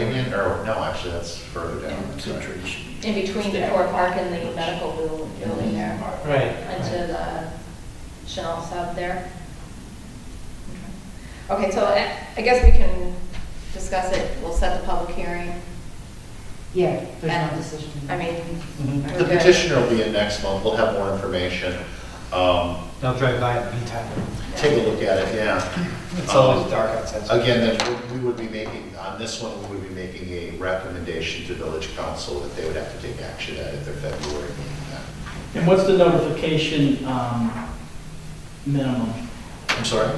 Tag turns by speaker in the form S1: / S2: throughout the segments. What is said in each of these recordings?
S1: think, or, no, actually, that's further down.
S2: Concentration.
S3: in between the core park and the medical bu- building there,
S4: Right.
S3: into the Chanel sub there. Okay, so I I guess we can discuss it, we'll set the public hearing.
S5: Yeah, there's
S3: And,
S5: no decision.
S3: I mean.
S4: Mm-hmm.
S3: we're
S1: The
S3: good.
S1: petitioner will be in next month, we'll have more information. Um,
S4: I'll drive by in the meantime.
S1: Take a look at it, yeah. Um,
S4: It's
S1: Oh.
S4: always dark outside. so-
S1: Again, then we we would be making, on this one, we would be making a recommendation to village council that they would have to take action at at their February meeting. then.
S6: And what's the notification um, minimum?
S1: I'm sorry?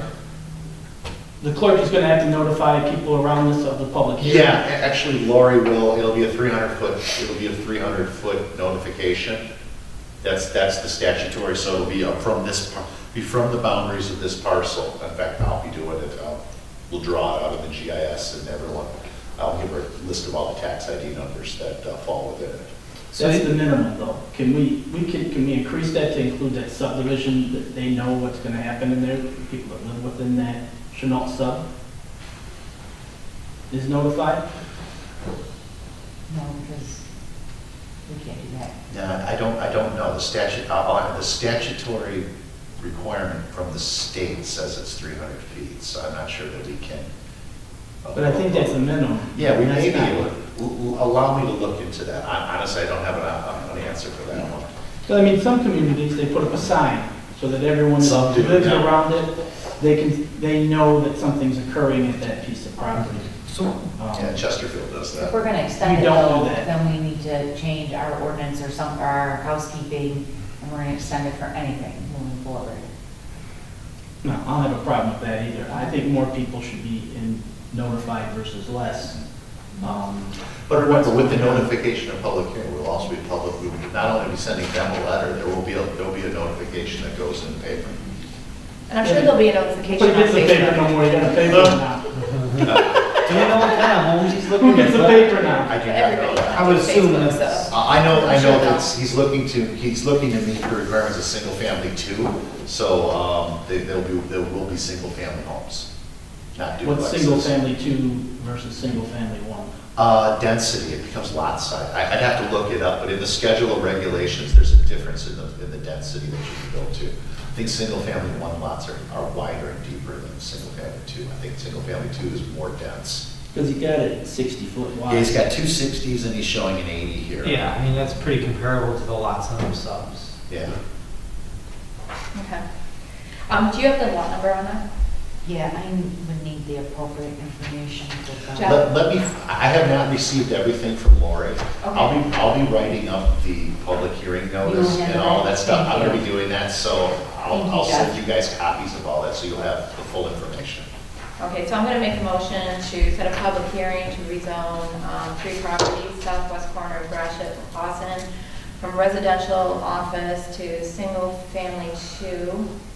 S6: The clerk is going to have to notify people around this of the public hearing.
S1: Yeah, a- actually Lori will, it'll be a 300 foot, it'll be a 300 foot notification. That's, that's the statutory, so it'll be up from this, par- be from the boundaries of this parcel. In fact, I'll be doing it, I'll- we'll draw it out of the GIS and everyone, I'll give her a list of all the tax ID numbers that uh, fall within it.
S4: So
S6: That's
S4: you-
S6: the minimum, though. Can we, we can, can we increase that to include that subdivision, that they know what's going to happen in there, the people that live within that Chenault sub is notified?
S5: No, because we can't do that.
S1: Now, I don't, I don't know, the statute, I'll- I'll- the statutory requirement from the state says it's 300 feet, so I'm not sure that we can.
S6: But I think that's the minimum.
S1: Yeah, we may
S6: That's
S1: be,
S6: not-
S1: able- l- l- allow me to look into that. I- Honestly, I don't have an uh, an answer for that one.
S6: But I mean, some communities, they put up a sign so that everyone
S1: Some do,
S6: that lives
S1: yeah.
S6: around it, they can, they know that something's occurring at that piece of property.
S2: So
S6: Um,
S1: Yeah, Chesterfield does
S5: If
S1: that.
S5: we're gonna extend
S6: You
S5: it
S6: don't know
S5: though,
S6: that.
S5: then we need to change our ordinance or some, or our housekeeping, and we're gonna extend it for anything moving forward.
S6: No, I don't have a problem with that either. I think more people should be in- notified versus less. Um,
S1: But remember, with the notification of public hearing, we'll also be public, we will not only be sending them a letter, there will be, a- there'll be a notification that goes in the paper.
S3: And I'm sure there'll be a
S6: But
S3: notification
S6: who
S3: on
S6: gets the paper no
S3: Facebook.
S6: more, you got a paper now.
S4: Do you know what kind of homes he's looking
S6: Who
S4: at?
S6: gets the paper now?
S1: I do not know
S3: Everybody
S1: that.
S4: I would
S3: likes
S4: assume
S3: Facebook,
S4: that's-
S3: so.
S1: I I know, I
S3: I'm sure
S1: know
S3: they'll-
S1: that he's looking to, he's looking to meet the requirements of single family too, so um, they- there'll be, there will be single family homes, not duplexes.
S6: What's single family two versus single family one?
S1: Uh, density, it becomes lot size. I, I'd have to look it up, but in the schedule of regulations, there's a difference in the, in the density that you can build to. I think single-family one lots are, are wider and deeper than single-family two. I think single-family two is more dense.
S6: Because he got it sixty foot
S1: Yeah,
S6: wide.
S1: He's got two sixties and he's showing an eighty here.
S4: Yeah, I mean, that's pretty comparable to the lots on the subs.
S1: Yeah.
S3: Okay. Um, do you have the lot number on that?
S5: Yeah, I would need the appropriate information to.
S3: Yeah.
S1: Let, let me, I have not received everything from Lori. I'll be, I'll be writing up the public hearing notice
S5: You have
S1: and all
S5: that?
S1: that stuff. I'm gonna be
S5: Thank
S1: doing that, so I'll,
S5: Thank you,
S1: I'll send
S5: Jeff.
S1: you guys copies of all that, so you'll have the full information.
S3: Okay, so I'm going to make a motion to set a public hearing to rezone um, three properties, southwest corner of Gratiot and Clausen, from residential office to single-family two.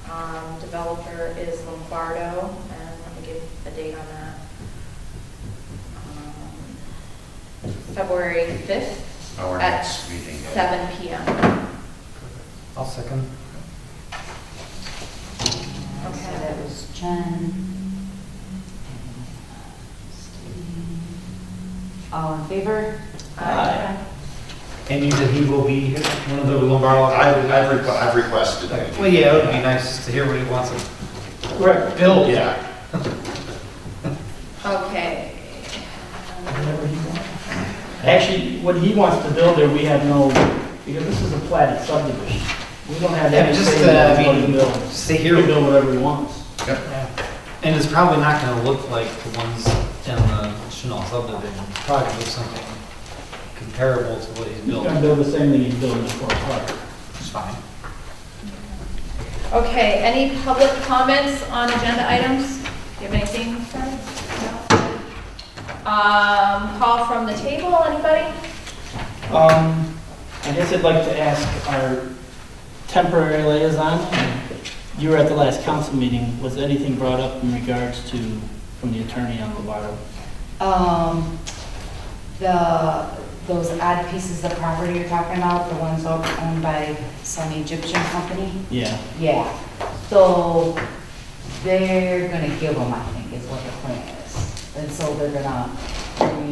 S3: Um, Developer is Lombardo, and let me give a date on that. Um, February 5th
S1: Our
S3: at
S1: next meeting.
S3: 7 PM.
S4: I'll second.
S5: So
S3: Okay.
S5: that was Jen. Steve. All in favor?
S3: Aye.
S4: And you said he will be here, one of the Lombardo.
S1: I- I've, requ- I've requested. that you
S4: Well,
S1: do
S4: yeah, it would be
S1: that.
S4: nice to hear what he wants to
S6: Correct.
S4: build.
S1: Yeah,
S3: Okay.
S6: Whatever he wants. Actually, what he wants to build there, we have no, because this is a platted subdivision. We don't have
S4: Yeah,
S6: any
S4: just,
S6: say
S4: uh,
S6: in
S4: I
S6: what he
S4: mean,
S6: builds.
S4: stay
S6: He
S4: here.
S6: can build whatever he wants.
S4: Yeah. And it's probably not gonna look like the ones in the Chanel subdivision. It's probably gonna look something comparable to what he's
S6: He's gonna
S4: building.
S6: build the same thing he's building for a park.
S4: It's fine.
S3: Okay, any public comments on agenda items? Do you have anything? Fred? No? Um, call from the table, anybody?
S6: Um, I guess I'd like to ask our temporary liaison, you were at the last council meeting, was anything brought up in regards to, from the attorney on Lovato?
S5: Um, the, those odd pieces of property you're talking about, the ones owned by some Egyptian company?
S6: Yeah,
S5: Yeah, so they're gonna give them, I think, is what the plan is. And so they're gonna,